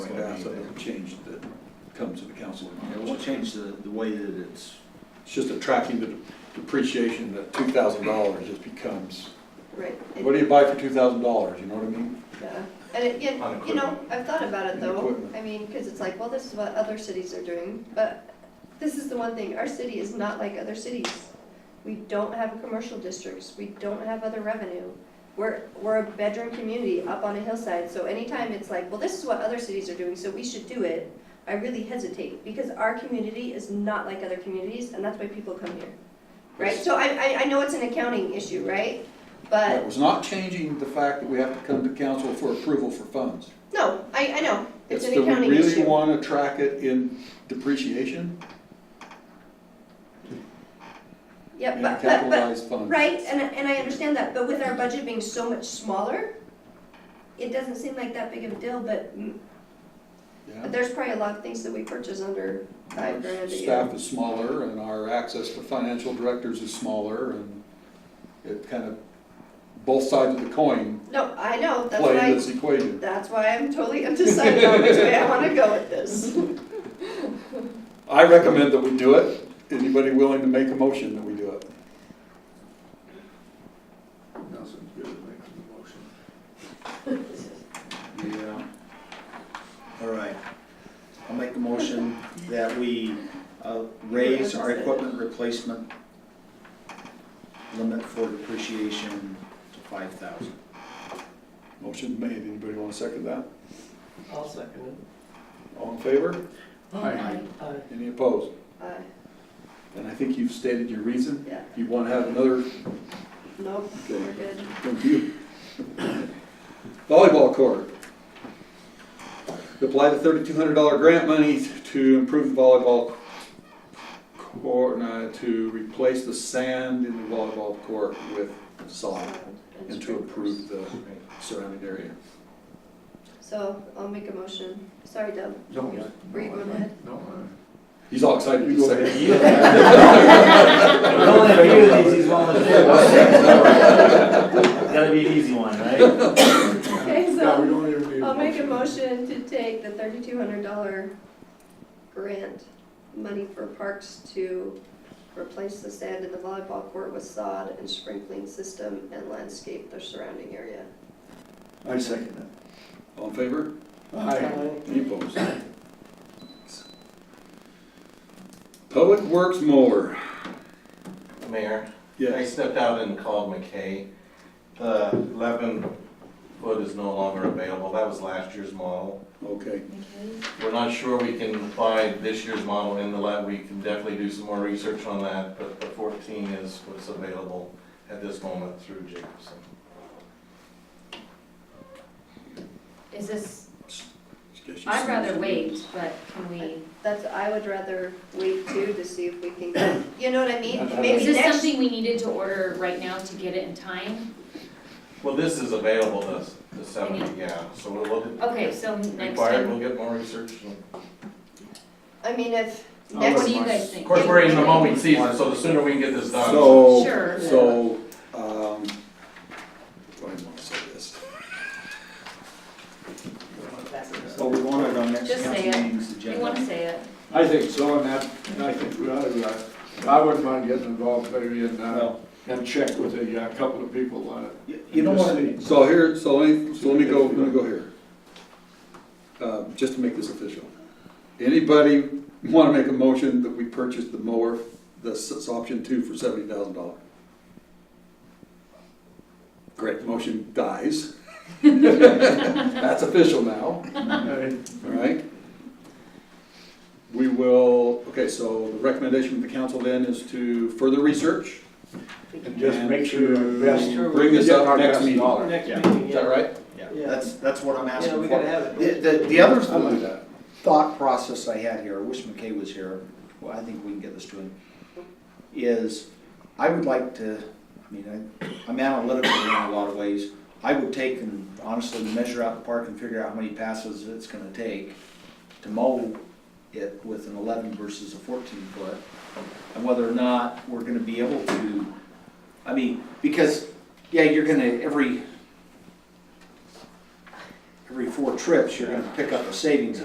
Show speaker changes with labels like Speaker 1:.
Speaker 1: So it'll change that comes to the council.
Speaker 2: It won't change the, the way that it's,
Speaker 1: It's just a tracking the depreciation, that two thousand dollars just becomes,
Speaker 3: Right. It-
Speaker 1: what do you buy for two thousand dollars, you know what I mean?
Speaker 3: yeah. And it, yeah,
Speaker 2: On
Speaker 3: you know, I've thought about
Speaker 1: On
Speaker 3: it though,
Speaker 1: equipment.
Speaker 3: I mean, because it's like, well, this is what other cities are doing, but this is the one thing, our city is not like other cities. We don't have commercial districts, we don't have other revenue. We're, we're a bedroom community up on a hillside, so anytime it's like, well, this is what other cities are doing, so we should do it, I really hesitate, because our community is not like other communities, and that's why people come here. Right, so I, I, I know it's an accounting issue, right? But
Speaker 1: That was not changing the fact that we have to come to council for approval for funds.
Speaker 3: No, I, I know, it's an
Speaker 1: that
Speaker 3: accounting
Speaker 1: We really
Speaker 3: issue.
Speaker 1: wanna track it in depreciation
Speaker 3: Yep,
Speaker 1: and
Speaker 3: but, but, but,
Speaker 1: capitalized funds.
Speaker 3: right, and, and I understand that, but with our budget being so much smaller, it doesn't seem like that big of a deal, but mm,
Speaker 1: Yeah.
Speaker 3: there's probably a lot of things that we purchase under five
Speaker 1: Our
Speaker 3: grand a year.
Speaker 1: Staff is smaller and our access to financial directors is smaller and it kind of, both sides of the coin
Speaker 3: No, I know, that's
Speaker 1: play in
Speaker 3: why,
Speaker 1: this e-, equation.
Speaker 3: that's why I'm totally undecided on which way I wanna go with this.
Speaker 1: I recommend that we do it. Anybody willing to make a motion that we do it?
Speaker 4: Nelson, good at making the motion.
Speaker 2: yeah. All right. I'll make the motion that we uh, raise our equipment replacement limit for depreciation to five thousand.
Speaker 1: Motion made. Anybody want to second that?
Speaker 5: I'll second
Speaker 1: All in favor?
Speaker 5: it.
Speaker 2: Aye.
Speaker 5: Aye.
Speaker 1: Any opposed?
Speaker 3: Uh,
Speaker 1: And I think you've stated your reason.
Speaker 3: yeah,
Speaker 1: You want to have another,
Speaker 3: nope, we're good.
Speaker 1: review. Volleyball court. Apply the thirty-two hundred dollar grant money to improve the volleyball court, no, to replace the sand in the volleyball court with sod
Speaker 3: Sound and
Speaker 1: and to
Speaker 3: scrapers.
Speaker 1: improve the surrounding area.
Speaker 3: So I'll make a motion. Sorry, Deb.
Speaker 4: No,
Speaker 3: Yeah.
Speaker 4: no,
Speaker 3: Were you going
Speaker 4: I-
Speaker 3: ahead?
Speaker 4: No, I-
Speaker 1: He's all excited. You go ahead.
Speaker 6: Only a few of these, he's one of the few. Gotta be an easy one, right?
Speaker 3: Okay, so.
Speaker 4: No, we don't even need.
Speaker 3: I'll make a motion to take the thirty-two hundred dollar grant money for parks to replace the sand in the volleyball court with sod and sprinkling system and landscape the surrounding area.
Speaker 4: I second
Speaker 1: All in favor?
Speaker 4: that. Aye.
Speaker 1: Any opposed? Public Works mower,
Speaker 7: Mayor, I
Speaker 1: yes.
Speaker 7: stepped out and called McKay. The eleven foot is no longer available, that was last year's model.
Speaker 1: Okay,
Speaker 7: We're not sure we can find this year's model in the lab, we can definitely do some more research on that, but the fourteen is what's available at this moment through Jacobson.
Speaker 8: Is this,
Speaker 1: Yes, you
Speaker 8: I'd rather
Speaker 1: see.
Speaker 8: wait, but can we,
Speaker 3: That's, I would rather wait too to see if we can, get- you know what I mean?
Speaker 8: is
Speaker 3: Maybe
Speaker 8: this
Speaker 3: next,
Speaker 8: something we needed to order right now to get it in time?
Speaker 7: Well, this is available, this, the seventy, yeah, so we'll, we'll
Speaker 8: Okay, so next
Speaker 7: require, it, we'll
Speaker 8: time,
Speaker 7: get more research. and-
Speaker 3: I mean, if
Speaker 7: I'll
Speaker 8: what
Speaker 3: next,
Speaker 8: do you
Speaker 7: let my-
Speaker 8: guys think?
Speaker 7: Of course, we're in the mowing season, so the sooner we can get this done.
Speaker 1: So,
Speaker 8: Sure.
Speaker 1: so, um, do I want to say this?
Speaker 2: Well, we want it on next
Speaker 8: Just say
Speaker 2: council
Speaker 8: it.
Speaker 2: meeting's
Speaker 8: You
Speaker 2: agenda.
Speaker 8: wanna say it?
Speaker 4: I think so, and that, and I think we ought to, uh, I wouldn't mind getting involved maybe in, uh,
Speaker 2: Well,
Speaker 4: and check with a, uh couple of people on it.
Speaker 2: y- you know
Speaker 4: Just
Speaker 2: what,
Speaker 4: see.
Speaker 1: So here, so let me, so let me go, let me go here. Uh, just to make this official. Anybody want to make a motion that we purchase the mower, that's option two for seventy thousand dollars? Great, motion dies. That's official now.
Speaker 4: Okay?
Speaker 1: All right. We will, okay, so the recommendation from the council then is to further research.
Speaker 4: And just make sure
Speaker 1: to
Speaker 4: you invest-
Speaker 1: Bring this
Speaker 4: get our
Speaker 1: up next
Speaker 4: best
Speaker 1: meeting.
Speaker 4: dollar.
Speaker 5: Next
Speaker 2: Yeah.
Speaker 5: meeting,
Speaker 1: Is that
Speaker 5: yeah.
Speaker 1: right?
Speaker 2: yeah,
Speaker 5: Yeah.
Speaker 2: that's, that's what I'm asking
Speaker 5: Yeah,
Speaker 2: for.
Speaker 5: we gotta have
Speaker 2: The,
Speaker 5: it.
Speaker 2: the, the other
Speaker 4: I like that.
Speaker 2: thought process I had here, I wish McKay was here, well, I think we can get this to him, is I would like to, I mean, I, I'm analytical in a lot of ways. I would take and honestly measure out the park and figure out how many passes it's gonna take to mow it with an eleven versus a fourteen foot. And whether or not we're gonna be able to, I mean, because, yeah, you're gonna, every, every four trips, you're gonna pick up a savings